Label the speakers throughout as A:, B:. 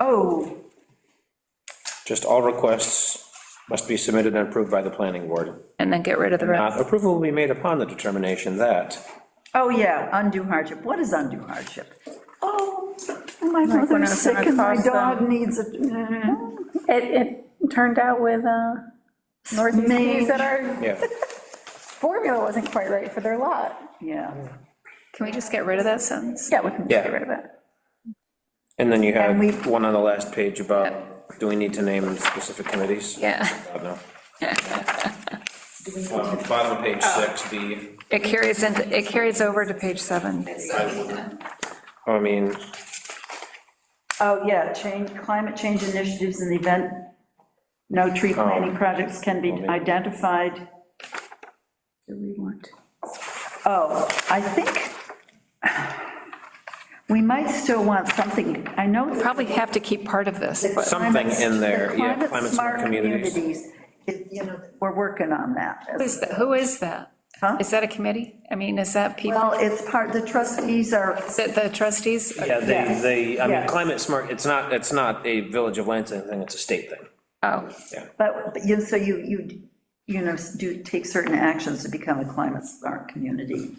A: Oh,
B: Just all requests must be submitted and approved by the planning board.
C: and then get rid of the rest.
B: Uh, Approval will be made upon the determination that,
A: oh, yeah, undue hardship. What is undue hardship? Oh, my
C: we're
A: mother's
C: not
A: sick
C: gonna
A: and my
C: cause them-
A: dog needs a, eh.
C: It, it turned out with uh, Northeast Keys that our
B: yeah,
C: formula wasn't quite right for their lot.
A: yeah.
C: Can we just get rid of that sentence?
A: Yeah, we can.
C: Get rid
B: yeah.
C: of it.
B: And then you
A: And we-
B: had one on the last page about, do we need to name specific committees?
C: Yeah,
B: I don't know. Um, Bottom of page
A: Oh.
B: six, B,
C: it carries into, it carries over to page seven.
B: I mean,
A: Oh, yeah, change, climate change initiatives in the event no tree planting projects can be identified.
C: Do we want?
A: Oh, I think we might still want something, I know. that-
C: Probably have to keep part of this, but
B: something in there,
A: The
B: yeah, climate smart communities.
A: it- you know, We're working on that.
C: who is that? Who is that?
A: Huh?
C: Is that a committee? I mean, is that people,
A: Well, it's part, the trustees are,
C: is it the trustees?
B: Yeah, they, they, I mean,
A: Yes.
B: climate smart, it's not, it's not a Village of Lansing thing, it's a state thing.
C: Oh,
A: but, but you, so you, you, you know, do, take certain actions to become a climate smart community.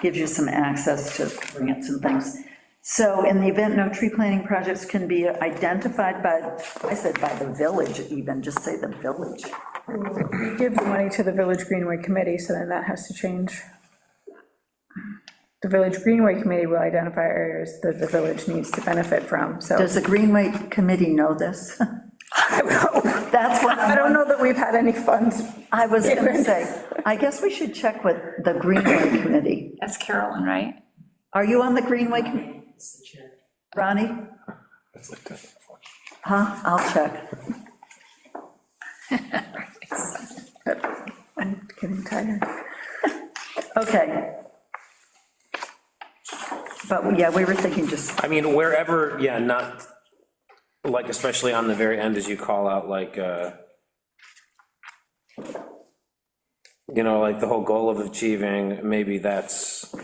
A: Gives you some access to grants and things. So in the event no tree planting projects can be identified by, I said by the village even, just say the village.
D: Give the money to the Village Greenway Committee, so then that has to change. The Village Greenway Committee will identify areas that the village needs to benefit from, so.
A: Does the Greenway Committee know this? That's what
D: I
A: I'm
D: don't know that we've had any funds.
A: I was going to say, I guess we should check with the Greenway Committee.
C: that's Carolyn, right?
A: Are you on the Greenway? Com- Ronnie? Huh, I'll check.
D: I'm getting tired.
A: Okay. But yeah, we were thinking just,
B: I mean, wherever, yeah, not, like, especially on the very end, as you call out, like, uh, you know, like the whole goal of achieving, maybe that's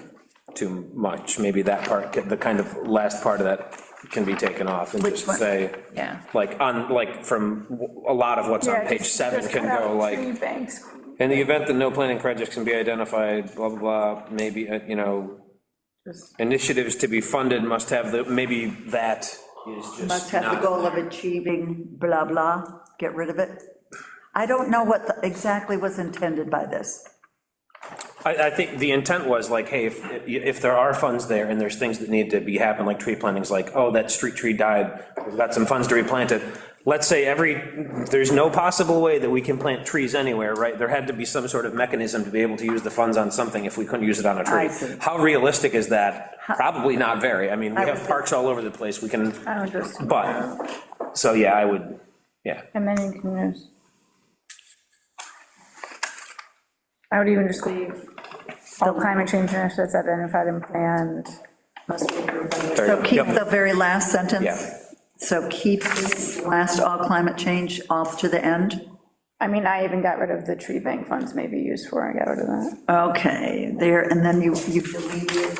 B: too much, maybe that part, could- the kind of last part of that can be taken off and just
A: one?
B: say,
C: Yeah.
B: like, on, like, from w- a lot of what's on
D: Yeah,
B: page
D: just-
B: seven
D: just
B: can
D: cut out
B: go like,
D: tree banks.
B: in the event that no planning projects can be identified, blah, blah, blah, maybe, uh, you know, initiatives to be funded must have the, maybe that is just.
A: must have the
B: not-
A: goal of achieving blah, blah, get rid of it. I don't know what the- exactly was intended by this.
B: I, I think the intent was like, hey, if, if there are funds there and there's things that need to be happened, like tree plantings, like, oh, that street tree died, we've got some funds to replant it. Let's say every, there's no possible way that we can plant trees anywhere, right? There had to be some sort of mechanism to be able to use the funds on something if we couldn't use it on a tree.
A: I see.
B: How realistic is that? Probably not very. I mean, we
A: I
B: have
A: would- Uh,
B: parks all over the place, we can,
D: I would just,
B: but, so yeah, I would, yeah.
D: and then you can just. I would even just leave all climate change initiatives identified and planned must be approved by the
A: So keep
B: Yep.
A: the very last sentence.
B: Yeah.
A: So keep this last all climate change off to the end.
D: I mean, I even got rid of the tree bank funds maybe used for, I got rid of that.
A: Okay, there, and then you, you deleted,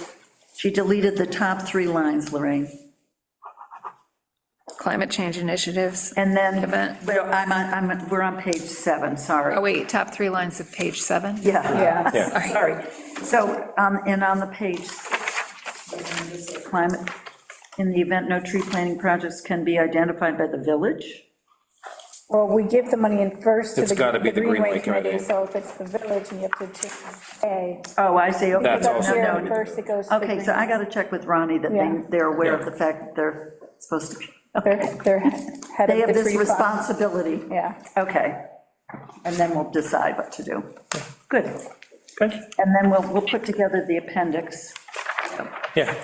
A: she deleted the top three lines, Lorraine.
C: Climate change initiatives.
A: And then,
C: Event.
A: well, I'm on, I'm, we're on page seven,
C: Oh,
A: sorry.
C: wait, top three lines of page seven?
A: Yeah,
D: Yeah.
A: sorry. So, um, and on the page, climate, in the event no tree planting projects can be identified by the village?
D: Well, we give the money in first to the.
B: It's gotta be the Greenway Committee.
D: So if it's the village and you have to change A.
A: Oh, I see, okay.
B: That's
D: it goes
B: also
D: here
B: gotta be the
D: First, it goes to the
A: Okay, so I got to check with Ronnie that they,
D: Yeah.
A: they're aware of
B: Yeah.
A: the fact that they're supposed to be, okay.
D: Green- They're, they're head
A: They have
D: of the
A: this
D: tree fund.
A: responsibility.
D: Yeah.
A: Okay, and then we'll decide what to do. Good. Good. And then we'll, we'll put together the appendix.
B: Yeah.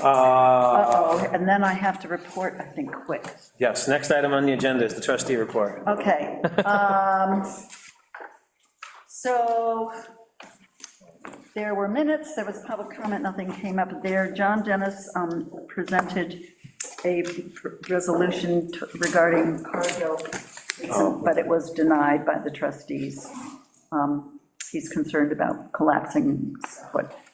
B: Uh,
A: Uh-oh, and then I have to report, I think, quick.
B: Yes, next item on the agenda is the trustee report.
A: Okay. um, So there were minutes, there was public comment, nothing came up there. John Dennis um, presented a pr- resolution t- regarding Cargill, but it was denied by the trustees. Um, He's concerned about collapsing, what